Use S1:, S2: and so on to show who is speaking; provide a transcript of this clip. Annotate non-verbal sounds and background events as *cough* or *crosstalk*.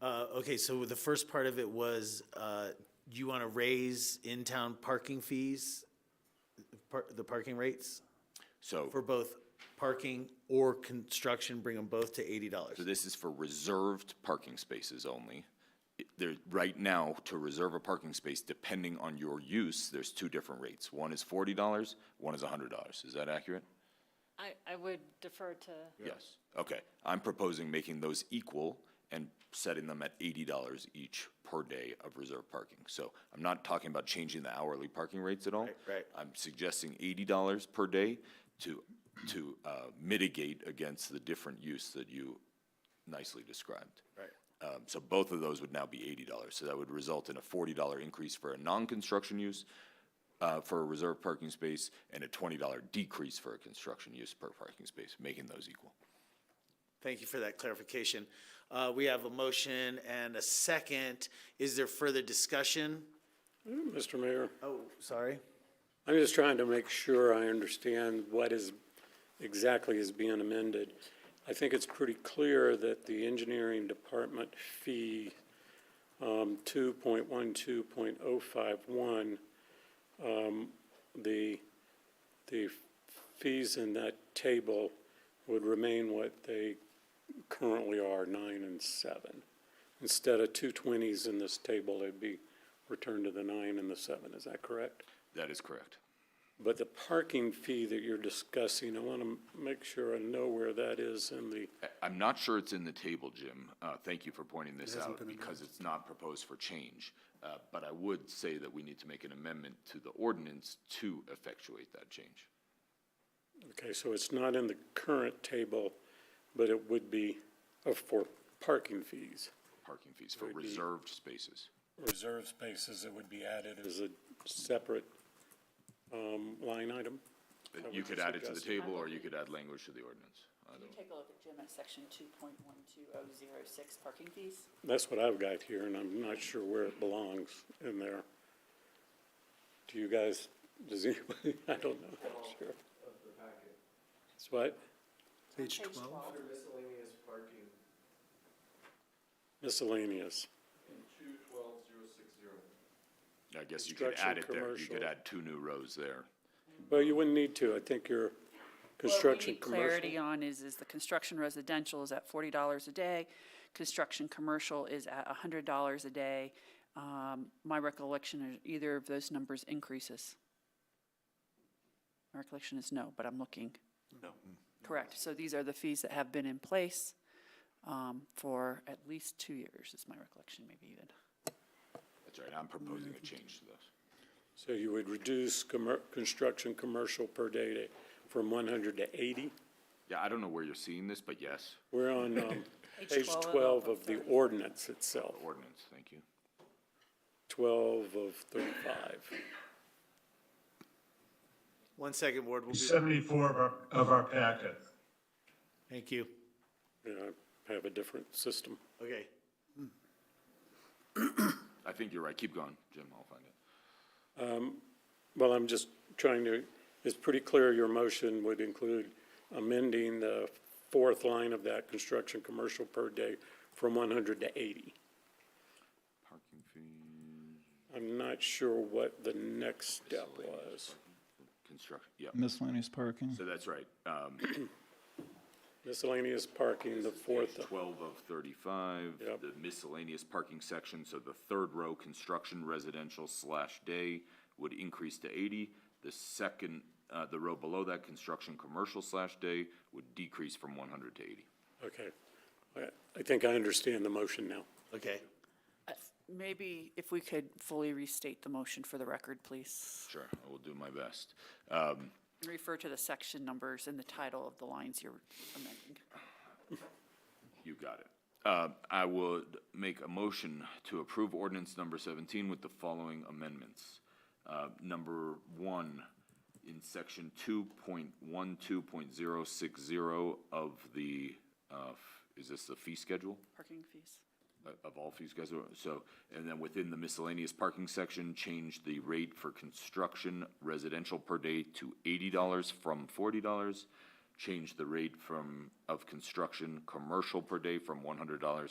S1: Uh, okay, so the first part of it was, uh, you want to raise in-town parking fees? Par- the parking rates
S2: So,
S1: for both parking or construction, bring them both to eighty dollars.
S2: so this is for reserved parking spaces only. It- There, right now, to reserve a parking space, depending on your use, there's two different rates. One is forty dollars, one is hundred dollars. Is that accurate?
S3: I, I would defer to,
S2: Yes. Okay, I'm proposing making those equal and setting them at eighty dollars each per day of reserved parking. So I'm not talking about changing the hourly parking rates at all.
S1: right.
S2: I'm suggesting eighty dollars per day to, to uh, mitigate against the different use that you nicely described.
S1: Right.
S2: Um, So both of those would now be eighty dollars, so that would result in a forty dollar increase for a non-construction use uh, for a reserved parking space, and a twenty dollar decrease for a construction use per parking space, making those equal.
S1: Thank you for that clarification. Uh, we have a motion and a second. Is there further discussion?
S4: Mr. Mayor,
S1: Oh, sorry.
S4: I'm just trying to make sure I understand what is, exactly is being amended. I think it's pretty clear that the engineering department fee, um, two point one, two point oh five one, um, the, the fees in that table would remain what they currently are, nine and seven. Instead of two twenties in this table, it'd be returned to the nine and the seven, is that correct?
S2: That is correct.
S4: But the parking fee that you're discussing, I want to make sure I know where that is in the,
S2: I'm not sure it's in the table, Jim. Uh, Thank you for pointing this out, because it's not proposed for change. Uh, But I would say that we need to make an amendment to the ordinance to effectuate that change.
S4: okay, so it's not in the current table, but it would be uh, for parking fees.
S2: Parking fees for reserved spaces.
S4: Reserve spaces, it would be added as a separate um, line item.
S2: Uh, You could add it to the table, or you could add language to the ordinance.
S5: Can you take a look at Jim at section two point one two oh zero six, parking fees?
S4: That's what I've got here, and I'm not sure where it belongs in there. Do you guys, does *laughs* anybody, I don't know, I'm not sure. It's what?
S6: Page 12.
S4: Miscellaneous.
S2: Uh, I guess you could
S4: Construction,
S2: add it there. You could
S4: commercial.
S2: add two new rows there.
S4: Well, you wouldn't need to. I think your construction
S5: Clarity
S4: commercial.
S5: on is, is the construction residential is at forty dollars a day, construction commercial is at a hundred dollars a day. Um, my recollection is either of those numbers increases. My recollection is no, but I'm looking. No. Correct, so these are the fees that have been in place, um, for at least two years, is my recollection, maybe even.
S2: That's right, I'm proposing a change to this.
S4: So you would reduce commer, construction commercial per day to, from one hundred to eighty?
S2: Yeah, I don't know where you're seeing this, but yes,
S4: We're on, um,
S5: Page
S4: page
S5: 12
S4: twelve of the ordinance itself,
S2: ordinance, thank you.
S4: twelve of thirty-five.
S1: One second, Ward. We'll
S7: Page
S1: be,
S7: Seventy-four of our, of our packet.
S1: thank you.
S4: You know, I have a different system.
S1: Okay.
S2: I think you're right, keep going, Jim, I'll find it.
S4: Well, I'm just trying to, it's pretty clear your motion would include amending the fourth line of that construction commercial per day from one hundred to eighty.
S2: Parking fees,
S4: I'm not sure what the next step was.
S2: construction, yeah,
S8: Miscellaneous parking.
S2: so that's right. Um,
S4: Miscellaneous parking, the fourth,
S2: Twelve of thirty-five,
S4: Yep.
S2: the miscellaneous parking section, so the third row, construction residential slash day would increase to eighty. The second, uh, the row below that, construction commercial slash day would decrease from one hundred to eighty.
S4: okay. I- I think I understand the motion now.
S1: Okay.
S5: Uh, Maybe if we could fully restate the motion for the record, please.
S2: Sure, I will do my best. Um,
S5: Refer to the section numbers and the title of the lines you're amending.
S2: You got it. Uh, I would make a motion to approve ordinance number 17 with the following amendments. Uh, Number one, in section 2.12.060 of the, uh, f- is this the fee schedule?
S5: Parking fees.
S2: Uh, Of all fees schedule? So, and then within the miscellaneous parking section, change the rate for construction residential per day to $80 from $40. Change the rate from, of construction commercial per day from $100